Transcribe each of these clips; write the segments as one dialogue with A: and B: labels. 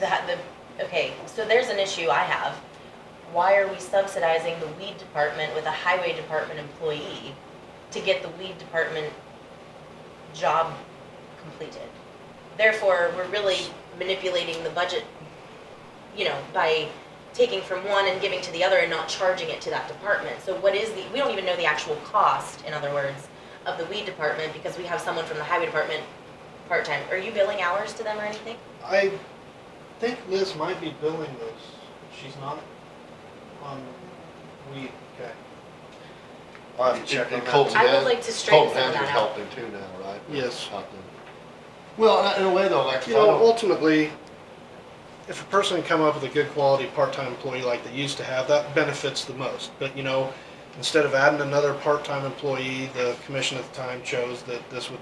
A: that, the, okay, so there's an issue I have. Why are we subsidizing the weed department with a highway department employee to get the weed department job completed? Therefore, we're really manipulating the budget, you know, by taking from one and giving to the other and not charging it to that department. So what is the, we don't even know the actual cost, in other words, of the weed department because we have someone from the highway department part-time. Are you billing hours to them or anything?
B: I think Liz might be billing those. She's not on weed, okay. I'll have to check on
C: And
B: that.
C: Colton
B: one.
A: I would
C: has-
A: like to straighten
C: Colton has
A: some of that
C: her
A: out.
C: helping too now, right?
B: Yes.
C: Helping. Well, in a- in a way though, like, if I
B: You know,
C: don't,
B: ultimately, if a person can come up with a good quality part-time employee like they used to have, that benefits the most. But, you know, instead of adding another part-time employee, the commission at the time chose that this would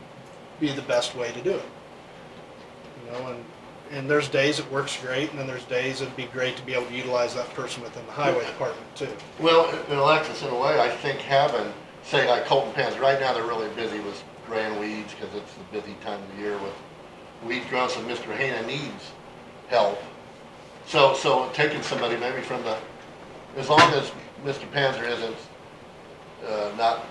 B: be the best way to do it. You know, and, and there's days it works great, and then there's days it'd be great to be able to utilize that person within the highway department too.
C: well, in Alexis, in a way, I think having, say like Colton Penn's, right now they're really busy with growing weeds, cause it's the busy time of the year with weed growing, so Mr. Hannah needs help. So, so taking somebody maybe from the, as long as Mr. Panzer isn't, uh, not,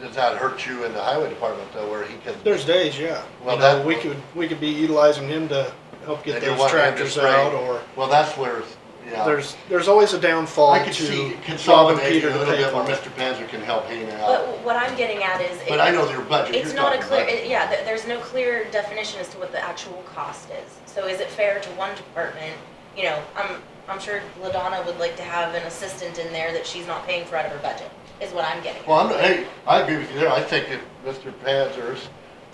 C: does not hurt you in the highway department though, where he can.
B: There's days, yeah.
C: Well,
B: You know,
C: that-
B: we could, we could be utilizing him to help get
C: They do
B: those
C: want him to
B: tractors
C: spray.
B: out, or
C: Well, that's where, yeah.
B: there's, there's always a downfall
C: I
B: to
C: could see
B: Bob and
C: consolidating
B: Peter
C: a
B: to
C: little
B: pay
C: bit where
B: for it.
C: Mr. Panzer can help Hannah
A: But
C: out,
A: what I'm getting at is.
C: but I know their budget.
A: It's
C: you're
A: not a
C: talking
A: clear,
C: about.
A: it- yeah, th- there's no clear definition as to what the actual cost is. So is it fair to one department, you know, I'm, I'm sure LaDonna would like to have an assistant in there that she's not paying for out of her budget, is what I'm getting at.
C: Well, I'm, hey, I agree with you there, I think if Mr. Panzer's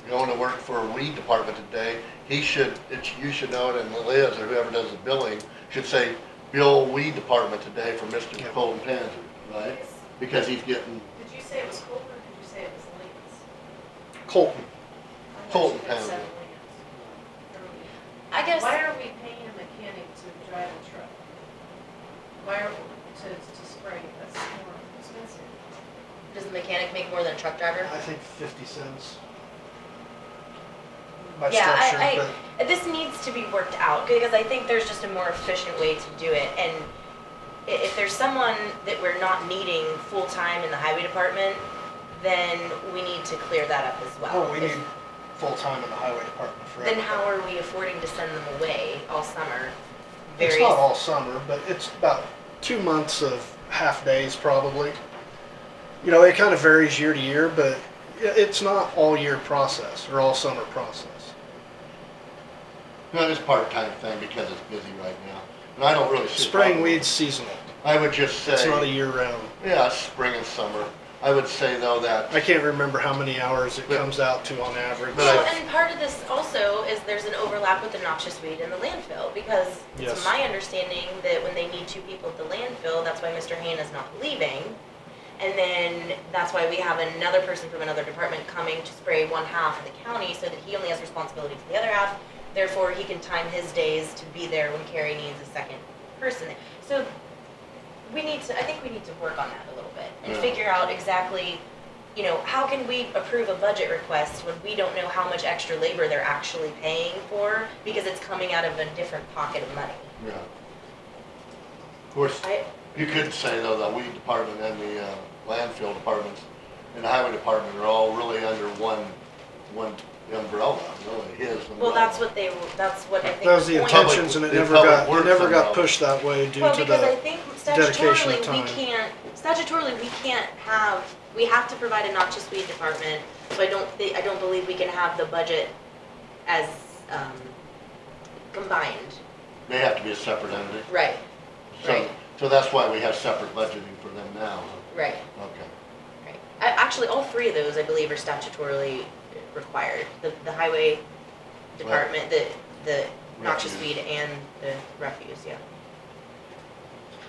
C: going to work for a weed department today, he should, it's, you should know it, and Liz, or whoever does the billing, should say, bill weed department today for Mr.
B: Yeah.
C: Colton Panzer, right? Because he's getting,
D: Did you say it was Colton or did you say it was Lance?
B: Colton,
D: I thought
C: Colton
D: you had said
C: Pound.
D: Lance.
A: I guess,
D: Why are we paying a mechanic to drive a truck? Why are, we- to, to spray, that's more expensive.
A: does the mechanic make more than a truck driver?
B: I think fifty cents. By
A: Yeah, I- I-
B: structure,
A: This needs to be worked out because I think there's just a more efficient way to do it. And i- if there's someone that we're not needing full-time in the highway department, then we need to clear that up as
B: but,
A: well.
B: oh, we
A: If-
B: need full-time in the highway department for
A: Then how
B: everything.
A: are we affording to send them away all summer?
B: It's
A: Various-
B: not all summer, but it's about two months of half days probably. You know, it kind of varies year to year, but i- it's not all year process or all summer process.
C: no, it's part-time thing because it's busy right now, and I don't really see. a
B: Spraying
C: problem.
B: weeds seasonal,
C: I would just
B: it's not a
C: say,
B: year round.
C: yeah, spring and summer, I would say though that
B: I can't remember how many hours it
C: But-
B: comes out to on average.
C: But I-
A: Well, and part of this also is there's an overlap with the noxious weed and the landfill, because
B: Yes.
A: it's my understanding that when they need two people at the landfill, that's why Mr. Hain is not leaving. And then that's why we have another person from another department coming to spray one half of the county, so that he only has responsibility for the other half. Therefore, he can time his days to be there when Carrie needs a second person. So we need to, I think we need to work on that a little bit and
C: Yeah.
A: figure out exactly, you know, how can we approve a budget request when we don't know how much extra labor they're actually paying for because it's coming out of a different pocket of money.
C: Yeah. Of course,
A: I,
C: you could say though, the weed department and the uh, landfill departments and the highway department are all really under one, one umbrella, really, his umbrella.
A: well, that's what they, were- that's what I think.
B: That was the
A: point-
C: public-
B: intentions and it
C: the
B: never
C: public
B: got, it
C: works
B: never got
C: involved.
B: pushed that way due
A: Well,
B: to
A: because I
B: the,
A: think
B: dedication of
A: statutorily, we
B: time.
A: can't, statutorily, we can't have, we have to provide a noxious weed department, so I don't thi, I don't believe we can have the budget as, um, combined.
C: They have to be a separate entity.
A: Right,
C: So,
A: Right.
C: so that's why we have separate budgeting for them now.
A: right,
C: Okay.
A: right. I, actually, all three of those, I believe, are statutorily required. The, the highway department, the, the noxious
C: Refuse.
A: weed and the refuse, yeah.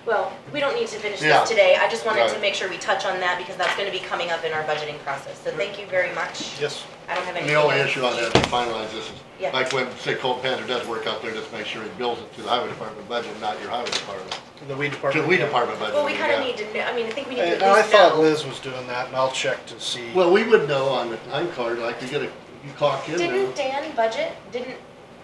A: Well, we don't need to finish
C: Yeah.
A: this today. I just wanted to
C: Right.
A: make sure we touch on that because that's gonna be coming up in our budgeting process. So thank you very much.
B: yes.
A: I don't have
C: And
A: any.
C: the only issue on that, to finalize this, is
A: Yeah.
C: like when, say Colt Panther does work out there, just make sure he bills it to the highway department budget, not your highway department.
B: The weed
C: To
B: department.
C: the weed
B: yeah.
C: department budget.
A: Well, we kinda
C: yeah.
A: need to know, I mean, I think we need to
B: And
A: at
B: I
A: least
B: thought
A: know.
B: Liz was doing that and I'll check to see.
C: Well, we would know on the time card, like you get a, you clock in there.
A: Didn't Dan budget, didn't